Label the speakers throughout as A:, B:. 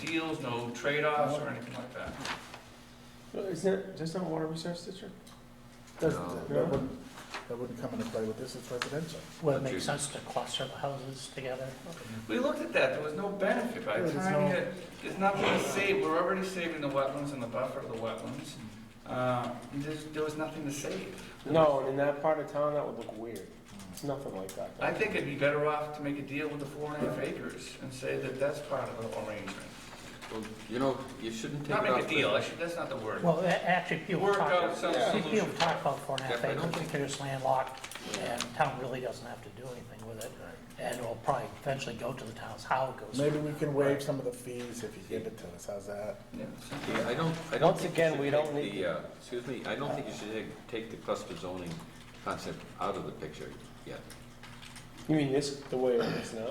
A: deals, no trade-offs or anything like that.
B: Is that, that's not a water resource district?
C: That
D: No.
C: that wouldn't, that wouldn't come into play with this, it's residential.
E: Would it
D: But you-
E: make sense to cluster the houses together?
A: We looked at that, there was no benefit by
C: Yeah,
A: the
C: there's
A: time
C: no-
A: that, there's nothing to save, we're already saving the wetlands and the buffer of the wetlands. Uh, there's, there was nothing to save.
B: No, and in that part of town, that would look weird. It's nothing like that.
A: I think it'd be better off to make a deal with the four and a half acres and say that that's part of the arrangement.
D: Well, You know, you shouldn't take it
A: Not
D: off.
A: make a
D: the-
A: deal, I should, that's not the word.
E: Well, a- actually, people
A: Work
E: talk,
A: out some
E: see, people
A: solution.
E: talk about four and a half
D: Yeah, I don't
E: acres,
D: think-
E: because it's landlocked, and town really doesn't have to do anything with it. And it'll probably eventually go to the towns, how it goes.
C: Maybe we can waive some of the fees if you give it to us, how's that?
A: Yeah, so-
D: Yeah, I don't, I don't
B: Once
D: think
B: again,
D: you
B: we
D: should
B: don't
D: take
B: need
D: the, uh, excuse me, I don't think you should take, take the cluster zoning concept out of the picture yet.
B: You mean this, the way it is now?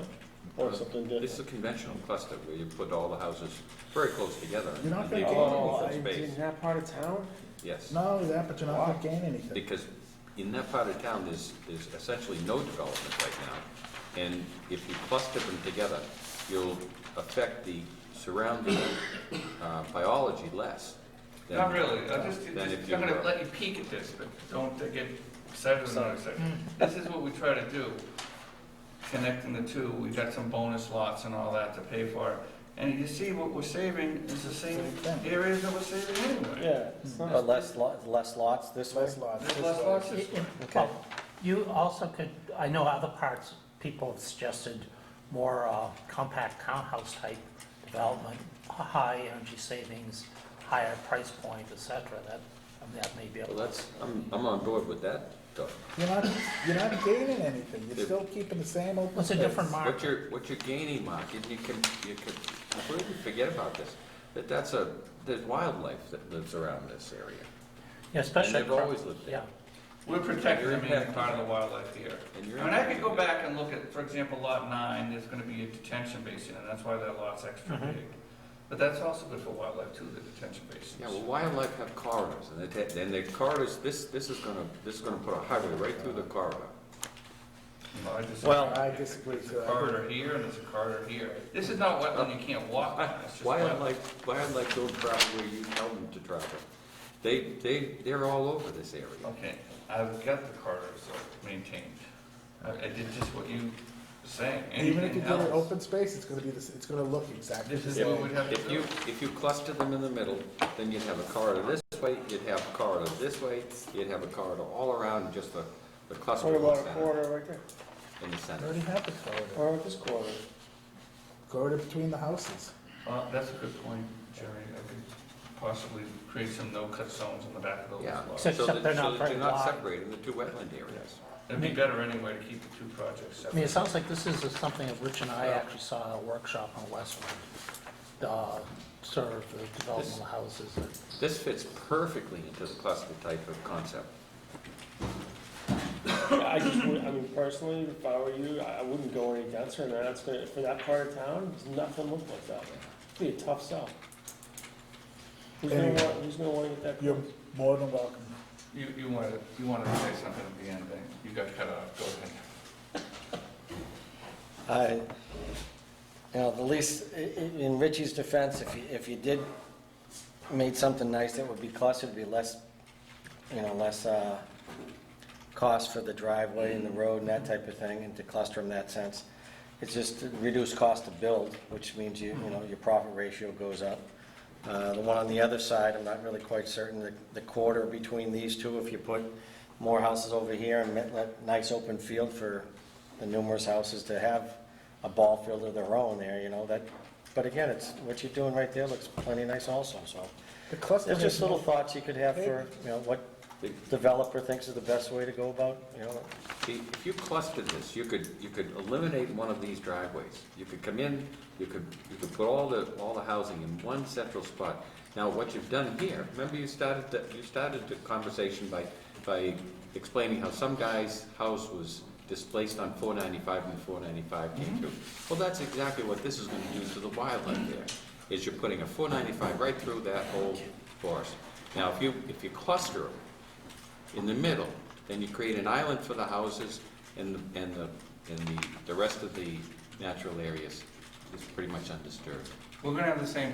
B: Or something
D: This is a
B: different? Oh,
D: conventional cluster where you put all the houses very close together
C: You're not
D: and
C: gonna
D: leave
C: gain
D: all
B: Oh,
D: open
B: in
D: space.
B: in that part of town?
D: Yes,
C: Not only that, but you're not gonna gain anything.
D: because in that part of town, there's, there's essentially no development right now. And if you cluster them together, you'll affect the surrounding uh, biology less than.
A: Not really, I just,
D: Then if
A: just-
D: you
A: I'm gonna
D: were-
A: let you peek at this, but don't uh, get excited about it. This is what we try to do, connecting the two, we got some bonus lots and all that to pay for. And you see, what we're saving is the same areas that we're saving anyway.
B: Yeah, it's not.
F: Hmm. But less lots, less lots this way?
C: Less lots.
A: There's less lots this way.
E: Well, You also could, I know other parts, people have suggested more uh, compact townhouse type development, high energy savings, higher price point, et cetera, that, I mean, that may be a
D: Well, that's, I'm, I'm on board with that, Doug.
C: You're not, you're not gaining anything, you're still keeping the same open
E: What's
C: space.
E: a different
D: What
E: market?
D: you're, what you're gaining, Mark, and you can, you can completely forget about this, that that's a, there's wildlife that lives around this area.
E: Yeah, Especially.
D: they've always lived there.
E: Yeah.
A: We're protecting the main part of the wildlife here.
D: And
A: I
D: you're.
A: mean, I could go back and look at, for example, lot nine, there's gonna be a detention basin, and that's why that lot's extra
D: Mm-hmm.
E: Mhm.
A: big. But that's also good for wildlife too, the detention basins.
D: Yeah, well, wildlife have corridors, and they, ta- and the corridors, this, this is gonna, this is gonna put a highway right through the corridor.
A: Well, I just-
F: Well,
C: I disagree
A: There's a
C: too.
A: corridor here and there's a corridor here. This is not wetland, you can't walk on, it's just wetland.
D: Wildlife, wildlife don't travel where you tell them to travel. They, they, they're all over this area.
A: Okay, I've got the corridors uh, maintained. I I did just what you were saying,
C: Even if you
A: anything
C: give it
A: else?
C: open space, it's gonna be, this. it's gonna look exactly
A: This
C: the
A: is what
C: same.
A: we'd have to
D: If you,
A: do.
D: if you cluster them in the middle, then you'd have a corridor this way, you'd have a corridor this way, you'd have a corridor all around, just the, the cluster
B: What
D: in the
B: about a
D: center.
B: quarter right there?
D: In the
C: You
D: center.
C: already have the corridor,
B: Or about this quarter?
C: corridor between the houses.
A: Uh, that's a good point, Jerry. I could possibly create some no-cut zones on the back of those
D: Yeah.
A: lots.
D: So
E: Except
D: that,
E: they're
D: so
E: not
D: that
E: very
D: you're not
E: wide.
D: separating the two wetland areas.
A: It'd be better anyway to keep the two projects
E: I mean,
A: separate.
E: it sounds like this is something that Rich and I actually saw at a workshop on Westwood, uh, sort of the development of houses. that-
D: This fits perfectly into the cluster type of concept.
B: Yeah, I just would, I mean, personally, if I were you, I I wouldn't go any denser than that. It's gonna, for that part of town, there's nothing look like that. It'd be a tough sell. Who's gonna
C: Anyway.
B: want, who's gonna wanna get that
C: You're
B: close?
C: more than welcome.
A: You, you wanted, you wanted to say something at the end, then you got cut off, go ahead.
F: I, you know, the least, i- i- in Richie's defense, if you, if you did made something nice, that would be clustered, it'd be less, you know, less, uh, cost for the driveway and the road and that type of thing, and to cluster in that sense. It's just to reduce cost to build, which means you, you know, your profit ratio goes up. Uh, the one on the other side, I'm not really quite certain, the, the quarter between these two, if you put more houses over here and let- let nice open field for the numerous houses to have a ball field of their own there, you know, that, but again, it's, what you're doing right there looks plenty nice also, so.
C: The cluster
F: There's just
C: has
F: little
C: no
F: thoughts you could have for, you know, what developer thinks is the best way to go about, you know,
D: See, If you clustered this, you could, you could eliminate one of these driveways. You could come in, you could, you could put all the, all the housing in one central spot. Now, what you've done here, remember you started, the- you started the conversation by, by explaining how some guy's house was displaced on four ninety-five and four ninety-five came through. Well, that's exactly what this is gonna do to the wildlife there, is you're putting a four ninety-five right through that whole forest. Now, if you, if you cluster them, in the middle, then you create an island for the houses and the, and the, and the, the rest of the natural areas is pretty much undisturbed.
A: We're gonna have the same